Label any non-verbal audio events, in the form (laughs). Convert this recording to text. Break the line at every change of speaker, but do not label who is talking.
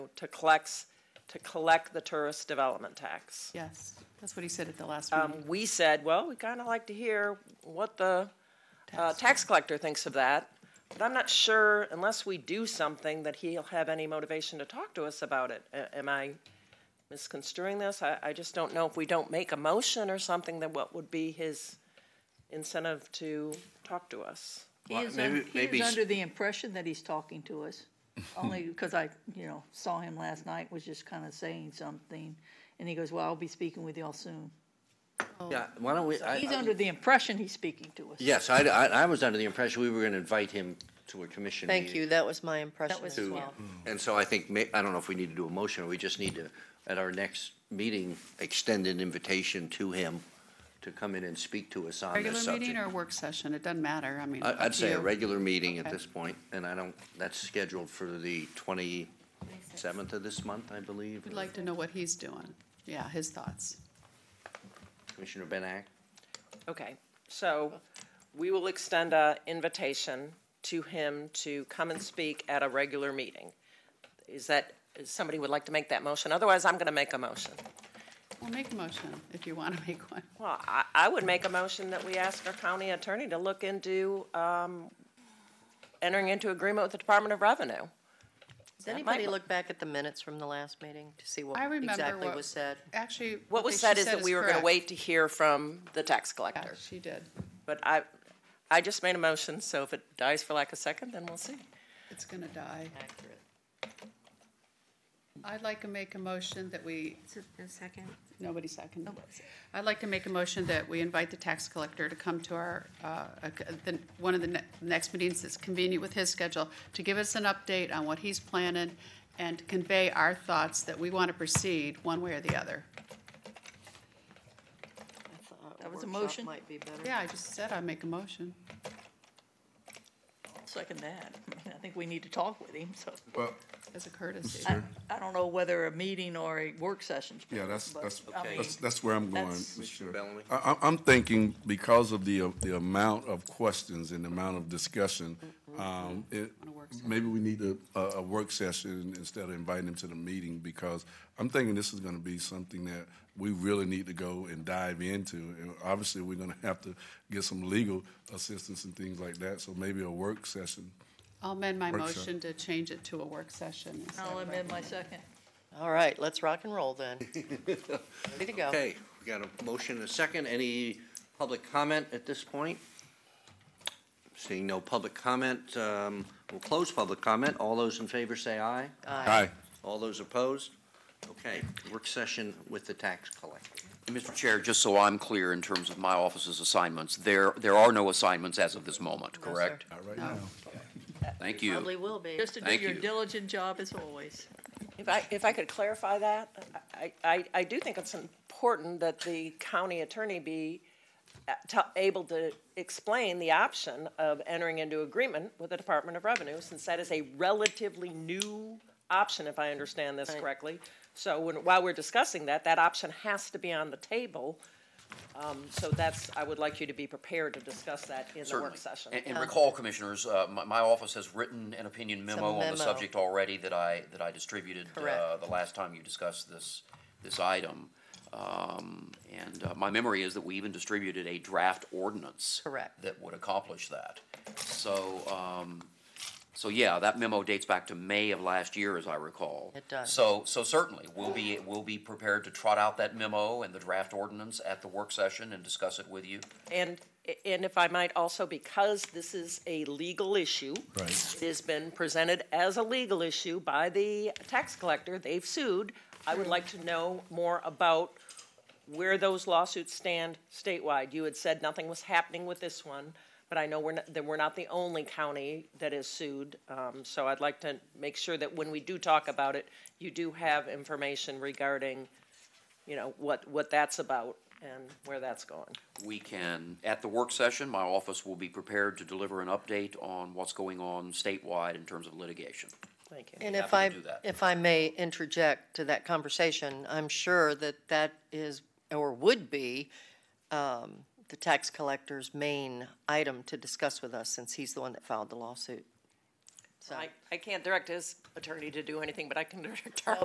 to collect, to collect the tourist development tax.
Yes, that's what he said at the last
Um,
meeting.
we said, well, we kind of like to hear what the, uh, tax collector thinks of that. But I'm not sure, unless we do something, that he'll have any motivation to talk to us about it. A- Am I misconstruing this? I, I just don't know if we don't make a motion or something, then what would be his incentive to talk to us?
He
Well,
is,
maybe-
un- he
maybe
is
s-
under the impression that he's talking to
(laughs)
us, only because I, you know, saw him last night, was just kind of saying something. And he goes, well, I'll be speaking with y'all soon.
Yeah, why don't we, I,
He's
I-
under the impression he's speaking to us.
yes, I, I, I was under the impression we were gonna invite him to a commission meeting.
Thank you, that was my impression
was-
as
to-
well.
And so I think, ma- I don't know if we need to do a motion, or we just need to, at our next meeting, extend an invitation to him to come in and speak to us on this
Regular
subject.
meeting or work session, it doesn't matter, I mean.
I,
up
I'd
to
say a
you.
regular meeting at
Okay.
this point, and I don't, that's scheduled for the twenty-seventh of this month, I believe.
We'd like to know what he's doing, yeah, his thoughts.
Commissioner Benak?
Okay, so we will extend a invitation to him to come and speak at a regular meeting. Is that, is somebody would like to make that motion? Otherwise, I'm going to make a motion.
Well, make a motion if you want to (laughs) make one.
Well, I, I would make a motion that we ask our county attorney to look into, um, entering into agreement with the Department of Revenue.
Does anybody
might-
look back at the minutes from the last meeting to see what
I remember
exactly
what-
was said?
Actually.
What was
she
said is that we were going to
correct.
wait to hear from the tax
Yeah,
collector.
she did.
But I, I just made a motion, so if it dies for lack of second, then we'll see.
It's going to die.
Accurate.
I'd like to make a motion that we,
A second.
nobody seconded. I'd like to make a motion that we invite the tax collector to come to our, uh, ac- the- one of the ne- next meetings that's convenient with his schedule, to give us an update on what he's planning and to convey our thoughts that we want to proceed one way or the other.
I thought
That was a
workshop
motion?
Might be better.
Yeah, I just said I'd make a motion.
Second that. I think we need to talk with him, so.
Well,
As a courtesy.
I, I don't know whether a meeting or a work session's
yeah, that's,
But,
that's,
I mean,
that's, that's where I'm going.
that's-
Mr. Chair.
Bellamy?
I, I'm- I'm thinking because of the, uh, the amount of questions and the amount of discussion,
Mm-hmm.
um, it, maybe we need a, a, a work session instead of inviting them to the meeting because I'm thinking this is gonna be something that we really need to go and dive into. And obviously, we're gonna have to get some legal assistance and things like that, so maybe a work session.
I'll amend my
Work session.
motion to change it to a work session. instead
I'll
of a-
amend my second.
All right, let's rock and roll then. Ready to go.
Okay, we got a motion and a second. Any public comment at this point? Seeing no public comment, um, we'll close public comment. All those in favor say aye.
Aye.
All those opposed? Okay, work session with the tax collector.
Mr. Chair, just so I'm clear in terms of my office's assignments, there, there are no assignments as of this moment,
sir.
correct?
All right now.
Thank you.
Probably will be.
Just to do
Thank
your
you.
diligent job as always.
If I, if I could clarify that, I, I, I do think it's important that the county attorney be uh, to- able to explain the option of entering into agreement with the Department of Revenue, since that is a relatively new option, if I understand this correctly. So when, while we're discussing that, that option has to be on the table. Um, So that's, I would like you to be prepared to discuss that in the work
Certainly.
session.
And- And recall, Commissioners, uh, my, my office has written an opinion
a
memo on
memo.
the subject already that I, that I distributed uh,
Correct.
the last time you discussed this, this item. Um, And uh, my memory is that we even distributed a draft ordinance.
Correct.
That would accomplish that. So, um, so yeah, that memo dates back to May of last year, as I recall.
It does.
So, so certainly, we'll be, we'll be prepared to trot out that memo and the draft ordinance at the work session and discuss it with you.
And, and if I might also, because this is a legal issue.
Right.
It has been presented as a legal issue by the tax collector, they've sued. I would like to know more about where those lawsuits stand statewide. You had said nothing was happening with this one, but I know we're not, that we're not the only county that is sued. Um, so I'd like to make sure that when we do talk about it, you do have information regarding, you know, what, what that's about and where that's going.
we can, at the work session, my office will be prepared to deliver an update on what's going on statewide in terms of litigation.
Thank you.
And if I,
Happy to do that.
if I may interject to that conversation, I'm sure that that is, or would be, um, the tax collector's main item to discuss with us, since he's the one that filed the lawsuit. so.
I, I can't direct his attorney to do anything, but I can direct our